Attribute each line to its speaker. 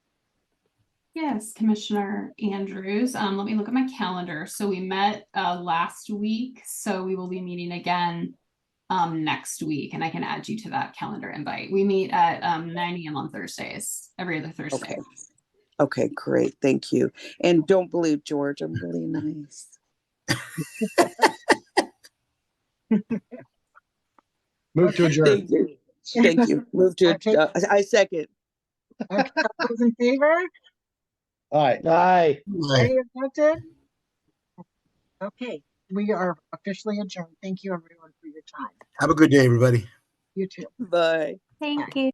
Speaker 1: Yes, Commissioner Andrews. Um, let me look at my calendar. So we met uh last week, so we will be meeting again um next week, and I can add you to that calendar invite. We meet at um nine AM on Thursdays, every other Thursday.
Speaker 2: Okay. Okay, great. Thank you. And don't believe George, I'm really nice.
Speaker 3: Move to adjourn.
Speaker 2: Thank you. Thank you. Move to,
Speaker 4: Okay.
Speaker 2: uh, I I second.
Speaker 4: Okay, all Those in favor?
Speaker 3: Aye.
Speaker 5: Aye.
Speaker 4: Any objected? Okay, we are officially adjourned. Thank you, everyone, for your time.
Speaker 6: Have a good day, everybody.
Speaker 4: You too.
Speaker 2: Bye.
Speaker 7: Thank you.